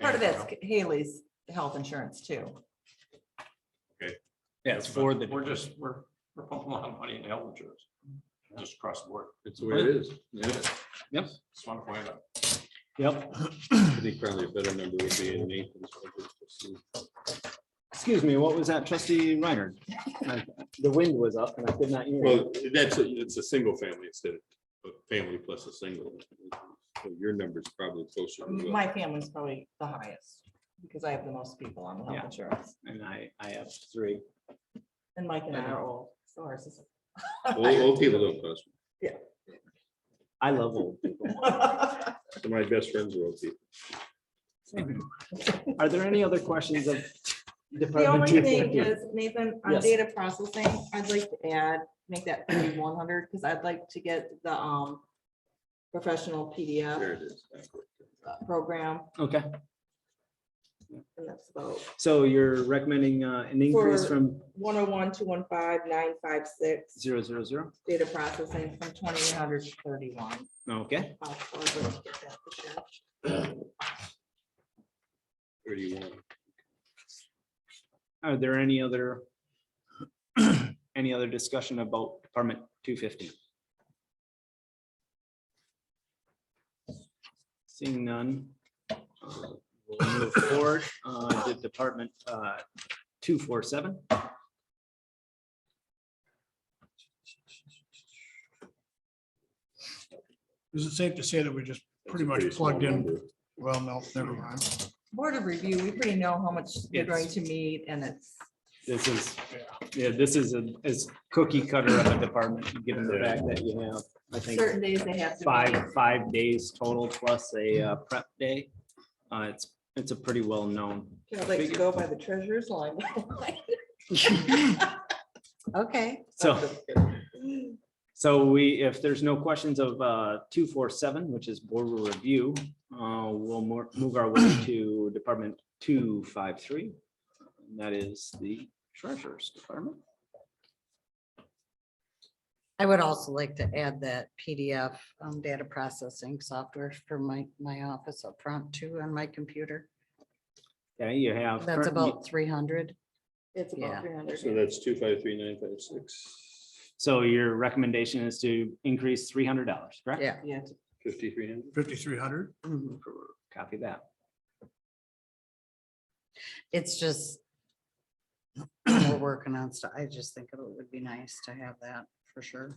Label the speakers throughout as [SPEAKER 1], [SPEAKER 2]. [SPEAKER 1] part of that's Haley's health insurance too.
[SPEAKER 2] Yeah, it's for the.
[SPEAKER 3] We're just, we're, we're pumping a lot of money in health insurance. Just across the board.
[SPEAKER 4] It's the way it is. Yeah.
[SPEAKER 2] Yep,
[SPEAKER 3] Just want to point out.
[SPEAKER 2] yep.
[SPEAKER 4] I think probably a better number would be in Nathan's.
[SPEAKER 2] Excuse me, what was that, trustee Reiner? Uh, The wind was up and I could not hear. you.
[SPEAKER 4] Well, that's, a- it's a single family instead of a family plus a single. So Your number's probably closer. to what-
[SPEAKER 1] My family's probably the highest because I have the most people on the
[SPEAKER 2] Yeah.
[SPEAKER 1] health insurance
[SPEAKER 2] And I, I have three.
[SPEAKER 1] and Mike and I are old. So ours is.
[SPEAKER 4] Old, old people don't cost.
[SPEAKER 2] I love old people.
[SPEAKER 4] Some of My best friends are old people.
[SPEAKER 2] Are there any other questions of?
[SPEAKER 1] The
[SPEAKER 2] Department
[SPEAKER 1] only
[SPEAKER 2] 250?
[SPEAKER 1] thing is, Nathan, on
[SPEAKER 2] Yes.
[SPEAKER 1] data processing, I'd like to add, make that thirty-one hundred, because I'd like to get the, um, professional
[SPEAKER 4] There
[SPEAKER 1] PDF
[SPEAKER 4] it is.
[SPEAKER 1] program,
[SPEAKER 2] Okay,
[SPEAKER 1] and that's about
[SPEAKER 2] so you're recommending uh, an increase
[SPEAKER 1] For-
[SPEAKER 2] from
[SPEAKER 1] one oh one, two one five, nine five six,
[SPEAKER 2] zero, zero, zero?
[SPEAKER 1] data processing from twenty-eight hundred to thirty-one.
[SPEAKER 2] Okay,
[SPEAKER 1] I'll forward it, get that for sure.
[SPEAKER 4] Thirty-one.
[SPEAKER 2] are there any other? Any other discussion about Department two fifty? Seeing none. uh, We'll move forward, uh, to Department uh, two four seven.
[SPEAKER 5] Is it safe to say that we just pretty
[SPEAKER 4] That's a
[SPEAKER 5] much
[SPEAKER 4] small
[SPEAKER 5] plugged in?
[SPEAKER 4] number.
[SPEAKER 5] Well, no, never mind.
[SPEAKER 1] Board of review, we pretty know how much you're
[SPEAKER 2] Yes.
[SPEAKER 1] going to meet, and it's,
[SPEAKER 2] This is, yeah, this is a, is cookie cutter of a department, given the fact that you have, I think.
[SPEAKER 1] certain days they have to. meet.
[SPEAKER 2] five, five days total plus a uh, prep day. Uh, it's, it's a pretty well-known.
[SPEAKER 1] I'd like to
[SPEAKER 2] figure.
[SPEAKER 1] go by the treasurer's line. Okay.
[SPEAKER 2] So, so we, if there's no questions of, uh, two, four, seven, which is board review, uh, we'll more, move our way to department two, five, three. And That is the treasurer's department.
[SPEAKER 6] I would also like to add that PDF um, data processing software for my, my office up front too on my computer.
[SPEAKER 2] Okay, you have.
[SPEAKER 6] That's
[SPEAKER 2] current-
[SPEAKER 6] about three hundred.
[SPEAKER 1] It's
[SPEAKER 6] Yeah.
[SPEAKER 1] about three hundred.
[SPEAKER 4] So that's two, five, three, nine, five, six,
[SPEAKER 2] So your recommendation is to increase three hundred dollars, correct?
[SPEAKER 6] Yeah. mm-hmm.
[SPEAKER 1] Yeah,
[SPEAKER 4] fifty-three hundred.
[SPEAKER 5] Fifty-three hundred?
[SPEAKER 2] Copy that.
[SPEAKER 6] It's just we're working on stuff. I just think it would be nice to have that for sure.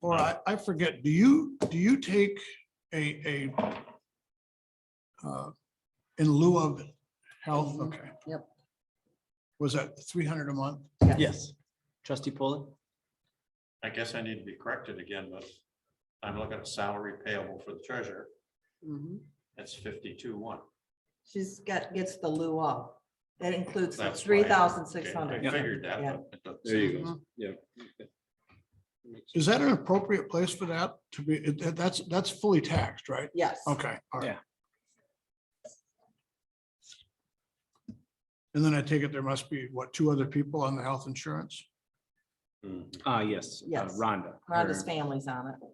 [SPEAKER 5] Or I, I forget, do you, do you take a, a uh, in lieu of health,
[SPEAKER 6] Mhm.
[SPEAKER 5] okay,
[SPEAKER 6] Yep.
[SPEAKER 5] was that three hundred a month?
[SPEAKER 2] Yes. Trustee Polly?
[SPEAKER 3] I guess I need to be corrected again, but I'm looking at salary payable for the treasurer.
[SPEAKER 6] Mhm.
[SPEAKER 3] That's fifty-two one.
[SPEAKER 1] she's got, gets the lieu of. That includes the
[SPEAKER 3] That's
[SPEAKER 1] three
[SPEAKER 3] why I-
[SPEAKER 1] thousand six hundred.
[SPEAKER 3] I figured that,
[SPEAKER 1] Yeah.
[SPEAKER 3] but it doesn't
[SPEAKER 4] There you go.
[SPEAKER 6] Mhm.
[SPEAKER 4] Yeah.
[SPEAKER 5] Is that an appropriate place for that to be, it- that- that's, that's fully taxed, right?
[SPEAKER 1] Yes.
[SPEAKER 5] Okay, all right.
[SPEAKER 2] Yeah.
[SPEAKER 5] And then I take it there must be, what, two other people on the health insurance?
[SPEAKER 4] Mhm.
[SPEAKER 2] Uh, yes. uh,
[SPEAKER 1] Yes.
[SPEAKER 2] Rhonda.
[SPEAKER 1] Rhonda's
[SPEAKER 2] her-
[SPEAKER 1] family's on it.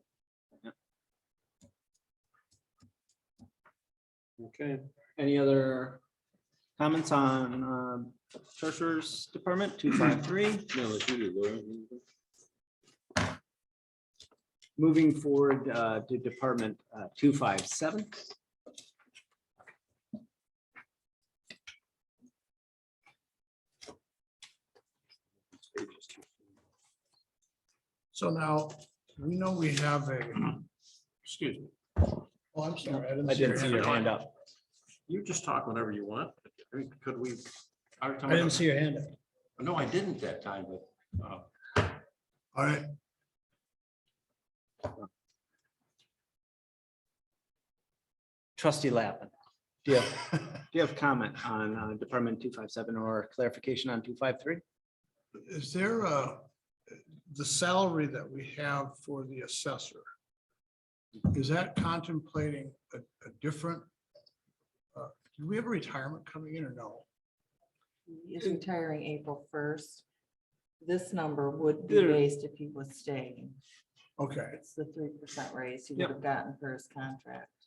[SPEAKER 4] Okay.
[SPEAKER 2] Any other comments on um, treasurer's department, two five three?
[SPEAKER 4] No, let's do it, Laura.
[SPEAKER 2] Moving forward uh, to department two five seven.
[SPEAKER 5] So now, we know we have a, excuse me. Oh, I'm sorry.
[SPEAKER 2] I didn't see your
[SPEAKER 5] hand.
[SPEAKER 2] hand up.
[SPEAKER 3] You just talk whenever you want. I mean, Could we? every time
[SPEAKER 5] I didn't see your hand. up.
[SPEAKER 3] No, I didn't that time, but uh,
[SPEAKER 5] All right,
[SPEAKER 2] Trustee Lappin. Do you have, do you have comment on uh, department two five seven or clarification on two five three?
[SPEAKER 5] is there uh the salary that we have for the assessor? Is that contemplating a, a different? uh, Do we have a retirement coming in or no?
[SPEAKER 1] He's retiring April first. This number would be
[SPEAKER 2] There-
[SPEAKER 1] raised if he was staying.
[SPEAKER 5] Okay.
[SPEAKER 1] It's the three percent raise he would have gotten for his contract.